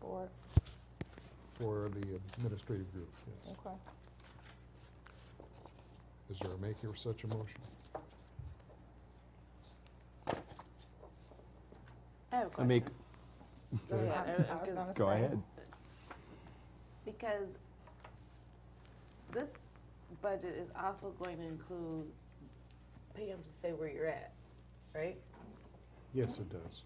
board, for the administrative group, yes. okay. Is there a maker of such a motion? I have a I question. make, Go Okay. Um, ahead. I- I was because- gonna go say, ahead. Because this budget is also going to include pay them to stay where you're at, right? Yes, it does.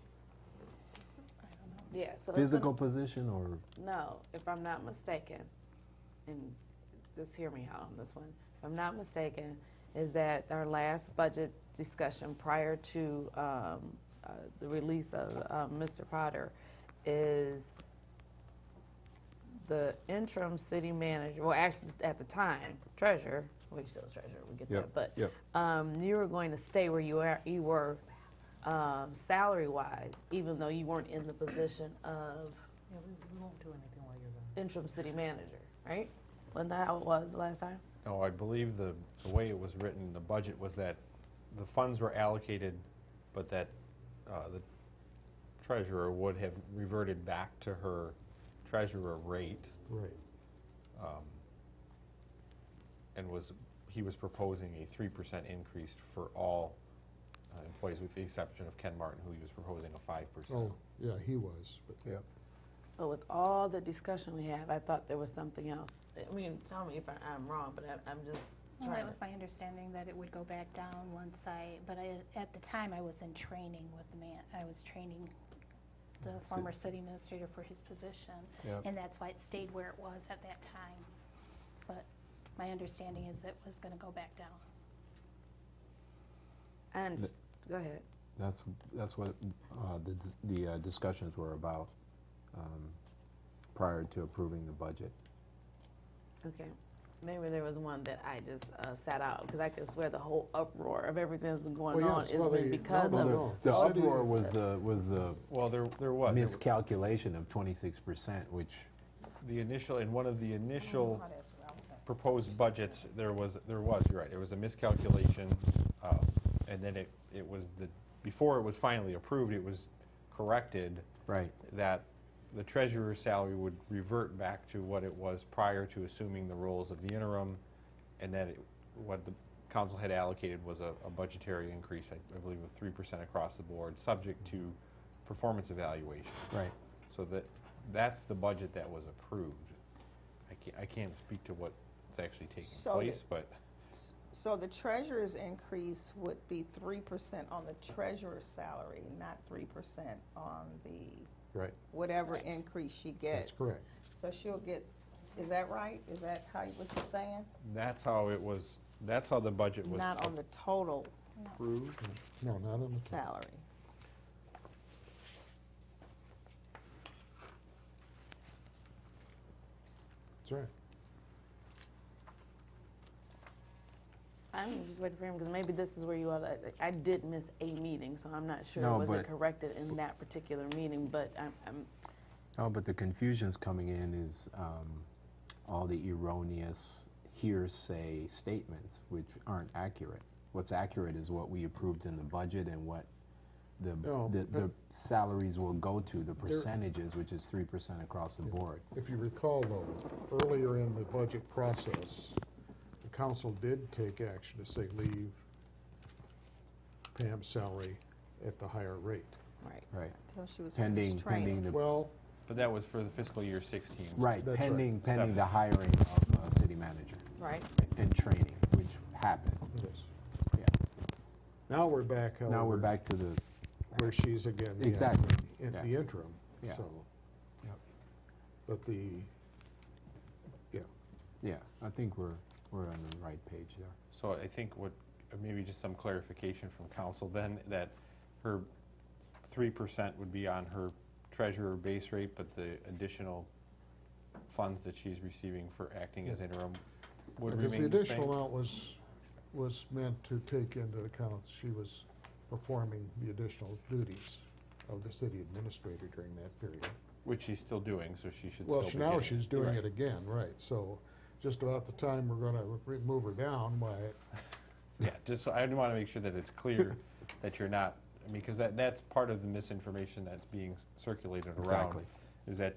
Yeah, so. it's physical position or, gonna- No, if I'm not mistaken, and just hear me out on this one. If I'm not mistaken, is that our last budget discussion prior to um, uh, the release of uh, Mr. Potter is the interim city manager, well, actually, at the time, treasurer, we still treasurer, we get Yep, that, but yep. um, you were going to stay where you are, you were um, salary-wise, even though you weren't in the position of Yeah, we, we won't do anything while you're gone. interim city manager, right? Wasn't that how it was the last time? No, I believe the, the way it was written, the budget was that the funds were allocated, but that uh, the treasurer would have reverted back to her treasurer rate Right, and was, he was proposing a three percent increase for all uh, employees with the exception of Ken Martin, who he was proposing a five percent. oh, yeah, he was, but. yeah, But with all the discussion we have, I thought there was something else. I mean, tell me if I- I'm wrong, but I- I'm just Well, that trying was to. my understanding that it would go back down once I, but I, at the time, I was in training with the man, I was training the former city administrator for his position. Yep. And that's why it stayed where it was at that time. But my understanding is it was gonna go back down. I under- Go ahead. that's, that's what uh, the dis- the uh, discussions were about um, prior to approving the budget. Okay. Maybe there was one that I just uh, sat out because I could swear the whole uproar of everything that's been going Well, on yes, has well, been the- because no, of. no, The no. the The city- uproar was the, was the Well, there, there was. There w- miscalculation of 26%, which, The initial, in one of the initial Oh, Not as relevant. proposed budgets, there was, there was, you're right, there was a miscalculation, um, and then it, it was the, before it was finally approved, it was corrected right, that the treasurer's salary would revert back to what it was prior to assuming the roles of the interim, and that it- what the council had allocated was a a budgetary increase, I I believe, of three percent across the board, subject to performance evaluation. right. So that, that's the budget that was approved. I can't, I can't speak to what's actually taking So place, but So the treasurer's increase would be three percent on the treasurer's salary, not three percent on the, Right, whatever increase she gets. that's correct. So she'll get, is that right? Is that how, you- what you're saying? that's how it was, that's how the budget was Not on the total approved. No, not on the, salary. that's right. I'm just waiting for him because maybe this is where you all. I, I did miss a meeting, so I'm not sure No, was it but- corrected in that particular meeting. But I'm, I'm Oh, but the confusion's coming in is um, all the erroneous hearsay statements, which aren't accurate. What's accurate is what we approved in the budget and what the, No, the, the but- salaries will go to, the percentages, which is 3% across the board. If you recall, though, earlier in the budget process, the council did take action to say leave Pam's salary at the higher rate. right. Right. Until she was finished Pending, training. pending the, Well, But that was for the fiscal year 16. right, That's right. pending, pending Seven. the hiring of a city manager Right. and training, which happened. yes. Yeah. Now we're back, however. Now we're back to the, Where she's again. the- Exactly, In yeah. the interim, Yeah. so. Yep. But the, yeah, yeah, I think we're, we're on the right page there. So I think what, uh, maybe just some clarification from council then, that her 3% would be on her treasurer base rate, but the additional funds that she's receiving for acting as interim would because the remain the additional same? amount was, was meant to take into account she was performing the additional duties of the city administrator during that period. Which she's still doing, so she should still Well, be she- getting. now she's doing Right. it again, right, so just about the time we're gonna re- move her down, why, Yeah, just, so- I want to make sure that it's clear that you're not, because that, that's part of the misinformation that's being circulated around. Exactly. Is that